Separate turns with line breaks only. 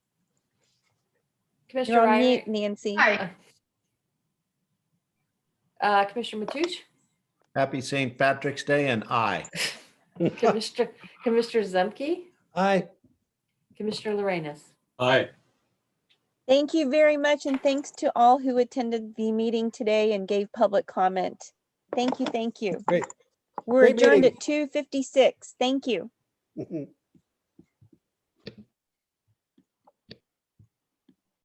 Commissioner
You're on
Ryan,
mute, Nancy.
Hi,
uh, Commissioner Mathush,
Happy St. Patrick's Day and I.
Commissioner, Commissioner Zemke,
Aye.
Commissioner Lorenz.
Aye.
Thank you very much, and thanks to all who attended the meeting today and gave public comment. Thank you, thank you.
Great.
We're
Great
adjourned
meeting.
at two fifty-six. Thank you.
Good